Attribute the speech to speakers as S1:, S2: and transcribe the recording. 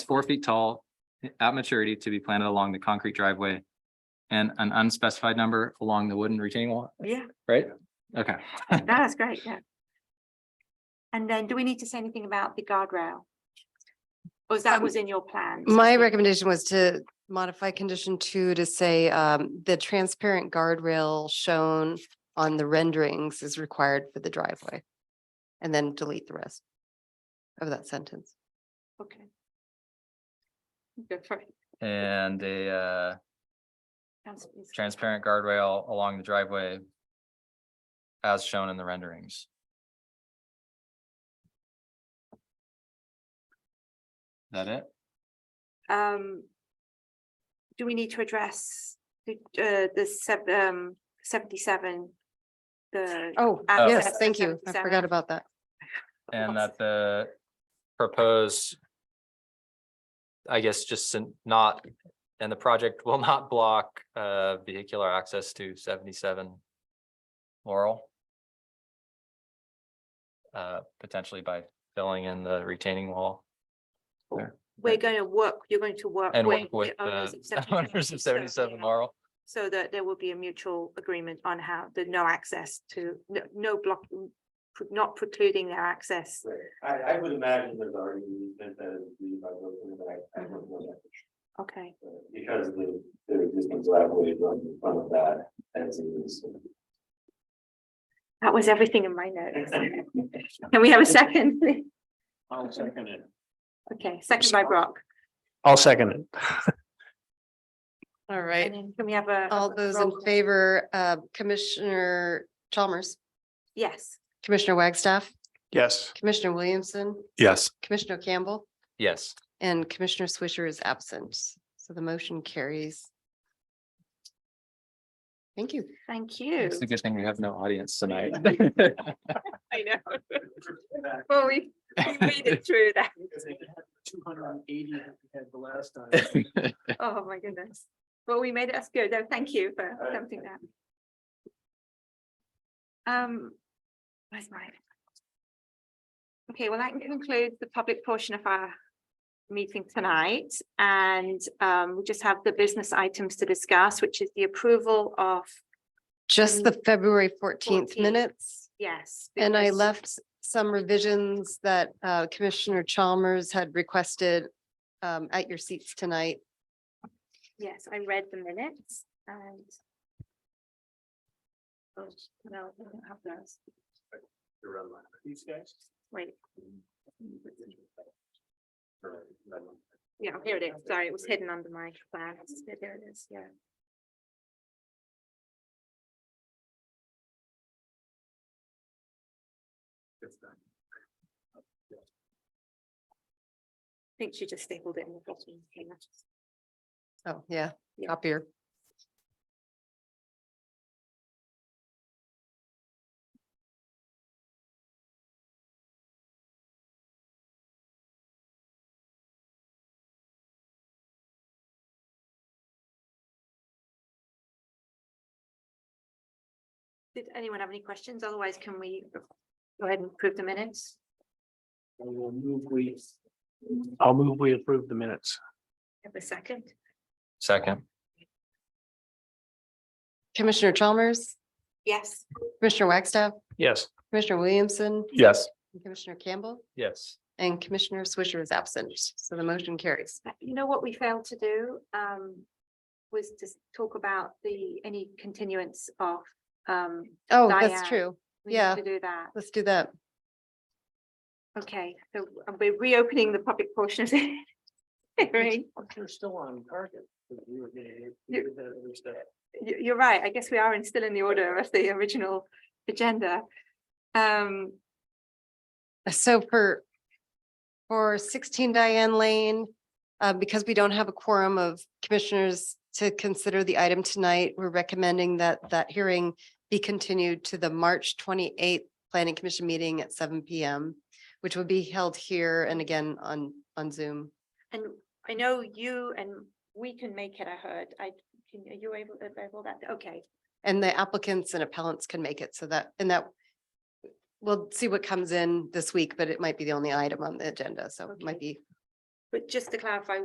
S1: four feet tall at maturity to be planted along the concrete driveway. And an unspecified number along the wooden retaining wall,
S2: Yeah,
S1: right? Okay,
S2: no, that's great, yeah. And then do we need to say anything about the guardrail? Or is that
S3: Um,
S2: was in your plan?
S3: My recommendation was to modify condition two to say um, the transparent guardrail shown on the renderings is required for the driveway. And then delete the rest of that sentence.
S2: Okay. Good for it.
S1: and the uh
S2: That's- it's-
S1: transparent guardrail along the driveway. As shown in the renderings. That it?
S2: Um. Do we need to address the, uh, the sev- um, seventy-seven? The.
S3: Oh,
S2: Uh,
S3: yes, thank you. I
S2: 77.
S3: forgot about that.
S1: And that the proposed. I guess just sin- not, and the project will not block uh vehicular access to seventy-seven Laurel. Uh, potentially by filling in the retaining wall
S2: We're going to work, you're going to work.
S1: and work with
S2: the owners
S1: the
S2: of 77
S1: owners
S2: so,
S1: of seventy-seven
S2: yeah.
S1: Laurel.
S2: So that there will be a mutual agreement on how the no access to, no- no block, not precluding their access.
S4: Right, I, I would imagine there's already an easement that is agreed by both of them, but I, I don't know that.
S2: Okay,
S4: for sure, Because the, the existing driveway runs in front of that as is.
S2: that was everything in my notes. Can we have a second? please?
S4: I'll second it.
S2: Okay, second by Brock.
S4: I'll second it.
S3: All
S2: And
S3: right.
S2: then can we have a?
S3: All those in
S2: roll call?
S3: favor, uh, Commissioner Chalmers,
S2: Yes.
S3: Commissioner Wagstaff,
S4: Yes.
S3: Commissioner Williamson,
S4: Yes.
S3: Commissioner Campbell,
S1: Yes,
S3: and Commissioner Swisher is absent. So the motion carries. Thank you.
S2: Thank you.
S1: it's a good thing we have no audience tonight.
S2: I know. Well, we, we made it through that.
S4: Two hundred and eighty we had the last time.
S2: Oh, my goodness. Well, we made it. That's good. No, Thank you for
S4: right.
S2: attempting that. Um, where's mine? Okay, well, that concludes the public portion of our meeting tonight. And um, we just have the business items to discuss, which is the approval of,
S3: Just the February fourteenth
S2: 14th.
S3: minutes,
S2: yes.
S3: and I
S2: because-
S3: left some revisions that uh, Commissioner Chalmers had requested um, at your seats tonight.
S2: Yes, I read the minutes and. Oh, no, I don't have those.
S4: These guys?
S2: Wait, yeah, here it is. Sorry, it was hidden under my plans. There- There it is, yeah. I think she just stapled it in the bottom. Okay, that's-
S3: Oh, yeah,
S2: Yeah.
S3: copier.
S2: Did anyone have any questions? Otherwise, can we go ahead and approve the minutes?
S4: will move we. I'll move we approve the minutes.
S2: Have a second?
S1: Second,
S3: Commissioner Chalmers,
S2: Yes.
S3: Commissioner Wagstaff,
S4: Yes.
S3: Commissioner Williamson,
S4: Yes.
S3: and Commissioner Campbell,
S1: yes.
S3: and Commissioner Swisher is absent, so the motion carries.
S2: Uh, You know what we failed to do, um, was to s- talk about the, any continuance of, um.
S3: Oh, that's
S2: Diane.
S3: true.
S2: we need
S3: Yeah.
S2: To do that,
S3: Let's do that.
S2: okay, so uh, we're reopening the public portion. of the hearing.
S4: You're still on target. because we were gonna hit-
S2: You-
S4: hit that other stuff.
S2: You, you're right, I guess we are in, still in the order of the original agenda. Um,
S3: Uh, So for, for sixteen Diane Lane, uh, because we don't have a quorum of commissioners to consider the item tonight, we're recommending that that hearing be continued to the March twenty-eighth Planning Commission meeting at seven P M, which will be held here and again on, on Zoom.
S2: and I know you and we can make it, I heard, I, can, are you able, able that, okay,
S3: And the applicants and appellants can make it so that, and that we'll see what comes in this week, but it might be the only item on the agenda, so it
S2: Okay.
S3: might be
S2: But just to clarify,